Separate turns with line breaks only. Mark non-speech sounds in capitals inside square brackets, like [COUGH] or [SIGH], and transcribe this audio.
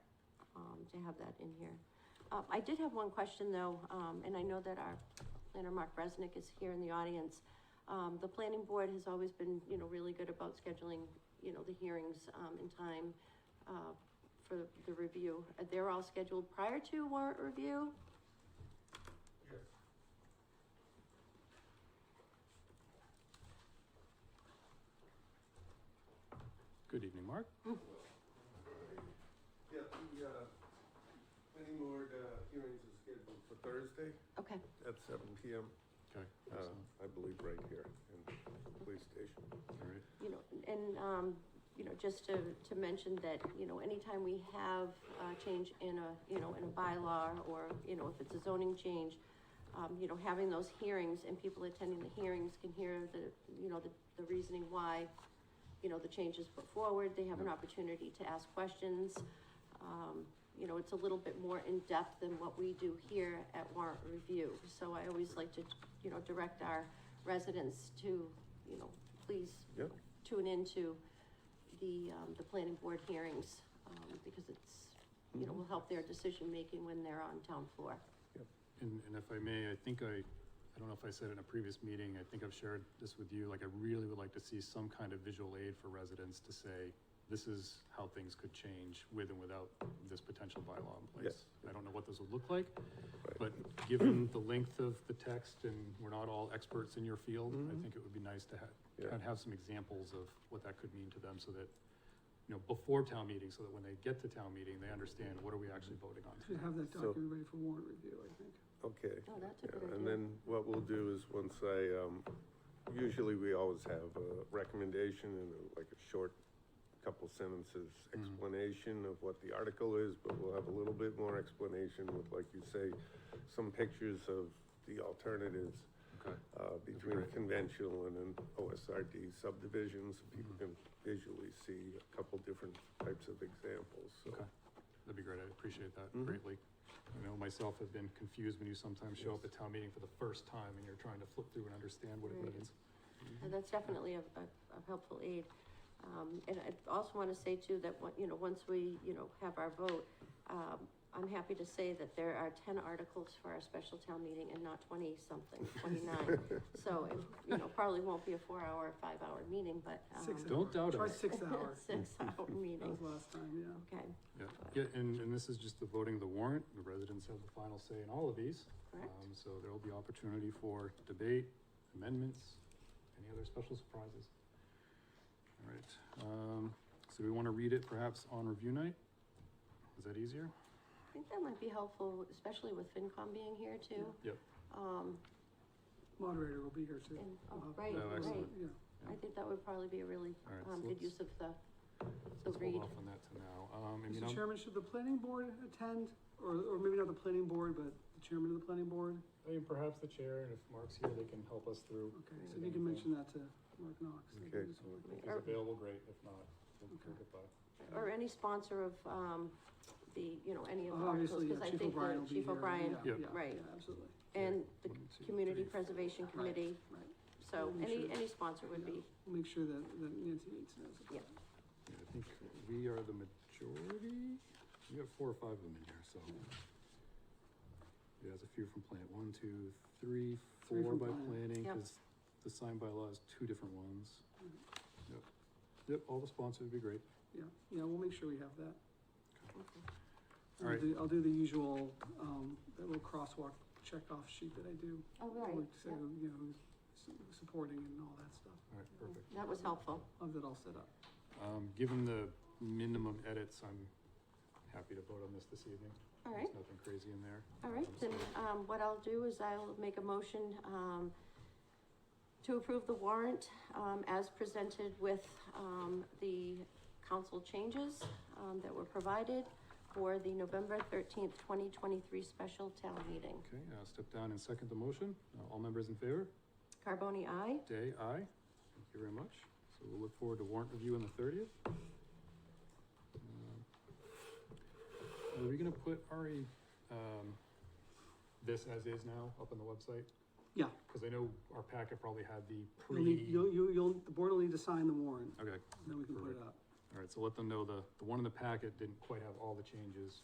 um, to have that in here. Uh, I did have one question though, um, and I know that our planner, Mark Resnick, is here in the audience. Um, the planning board has always been, you know, really good about scheduling, you know, the hearings, um, in time, uh, for the review. Uh, They're all scheduled prior to warrant review?
Yes.
Good evening, Mark.
Yeah, the, uh, planning board, uh, hearings are scheduled for Thursday
Okay,
at seven P M.
Okay.
Uh,
excellent.
I believe right here in the police station.
All right.
you know, and, um, you know, just to, to mention that, you know, anytime we have a change in a, you know, in a bylaw or, you know, if it's a zoning change, um, you know, having those hearings and people attending the hearings can hear the, you know, the, the reasoning why, you know, the change is put forward, they have an opportunity to ask questions. Um, you know, it's a little bit more in-depth than what we do here at warrant review. So I always like to, you know, direct our residents to, you know, please
Yeah.
tune into the, um, the planning board hearings, um, because it's, you
Mm-hmm.
know, will help their decision-making when they're on town floor.
Yep.
And, and if I may, I think I, I don't know if I said it in a previous meeting, I think I've shared this with you, like I really would like to see some kind of visual aid for residents to say, this is how things could change with and without this potential bylaw in place. I don't know what those would look like,
Right.
but given the length of the text and we're not all experts in your field, I think it would be nice to have,
Mm-hmm. Yeah.
kind of have some examples of what that could mean to them so that, you know, before town meeting, so that when they get to town meeting, they understand what are we actually voting on
Should
tonight.
have that
So-
document ready for warrant review, I think.
Okay.
Oh, that's a
Yeah,
good idea.
And then what we'll do is once I, um, usually we always have a recommendation and a- like a short couple sentences explanation of what the article is, but we'll have a little bit more explanation with, like you say, some pictures of the alternatives
Okay.
uh, between conventional and an OSRD subdivisions.
Mm-hmm.
People can visually see a couple different types of examples,
Okay,
so.
that'd be great, I appreciate that greatly. I know myself have been confused when you sometimes show up
Yes.
at town meeting for the first time and you're trying to flip through and understand what it
Right.
means.
And that's definitely a, a, a helpful aid. Um, and I also want to say too that, what- you know, once we, you know, have our vote, um, I'm happy to say that there are ten articles for our special town meeting and not
[LAUGHS]
twenty-something, twenty-nine. So, it, you know, probably won't be a four-hour, five-hour meeting, but,
Six
um,
Don't
hour.
doubt
Try
it.
[LAUGHS]
six hours.
six-hour
That was
[LAUGHS]
meeting,
last time, yeah.
okay,
Yeah, yeah, and, and this is just the voting of the warrant, the residents have the final say in all of these.
Correct.
Um, So there will be opportunity for debate, amendments, any other special surprises. All right, um, so we want to read it perhaps on review night? Is that easier?
I think that might be helpful, especially with FinCom being here too.
Yep.
Um,
Moderator will be here too.
And- oh,
We'll have-
right,
Oh, excellent.
Yeah,
I think that would probably be a really,
All right, so
um, good
let's-
use of the, the
Let's
read.
hold off on that to now. Um, I mean,
Mr.
I'm-
Chairman, should the planning board attend? Or, or maybe not the planning board, but the chairman of the planning board?
I mean, perhaps the chair, and if Mark's here, they can help us through.
Okay, so if you can mention that to Mark Knox. that'd be
Okay.
useful.
If he's
Or-
available, great, if not, we'll
Okay.
get by.
or any sponsor of, um, the, you know, any of the articles,
Obviously,
because
yeah,
I
Chief
think
O'Brien
the
will be
Chief
here.
O'Brien
yeah,
Yeah.
yeah,
right.
yeah, Absolutely.
and the
One, two,
Community
three.
Preservation Committee,
Right.
so
Make
any,
sure-
any sponsor would be,
Yeah. We'll Make sure that, that Nancy Yates knows. about
Yeah.
it.
Yeah, I think we are the majority, we have four or five of them in here, so. Yeah, there's a few from plant, one, two, three,
Three
four
from
by
plant.
planning,
Yep.
because the sign by law is two different ones.
Mm-hmm.
Yep, yep, all the sponsors would be great.
Yeah, yeah, we'll make sure we have that.
All
I'll
right.
do, I'll do the usual, um, that little crosswalk checkoff sheet that I do.
Oh, right,
Like, So,
yeah.
you know, s- supporting and all that stuff.
All right, perfect.
that was helpful.
I'll have that all set up.
Um, given the minimum edits, I'm happy to vote on this this evening.
All
There's
right.
nothing crazy in there.
All right,
Um, so-
then, um, what I'll do is I'll make a motion, um, to approve the warrant, um, as presented with, um, the council changes, um, that were provided for the November thirteenth, twenty twenty-three special town meeting.
Okay, uh, step down and second the motion. Uh, All members in favor?
Carboni, I.
Day, aye. Thank you very much. So we'll look forward to warrant review on the thirtieth. Um, Are we gonna put Ari, um, this as is now up on the website?
Yeah,
Cause I know our packet probably had the
you'll,
pre.
need- you'll, you'll, you'll- the board will need to sign the warrant,
Okay,
then we can put it
Perfect.
up.
all right, so let them know the, the one in the packet didn't quite have all the changes.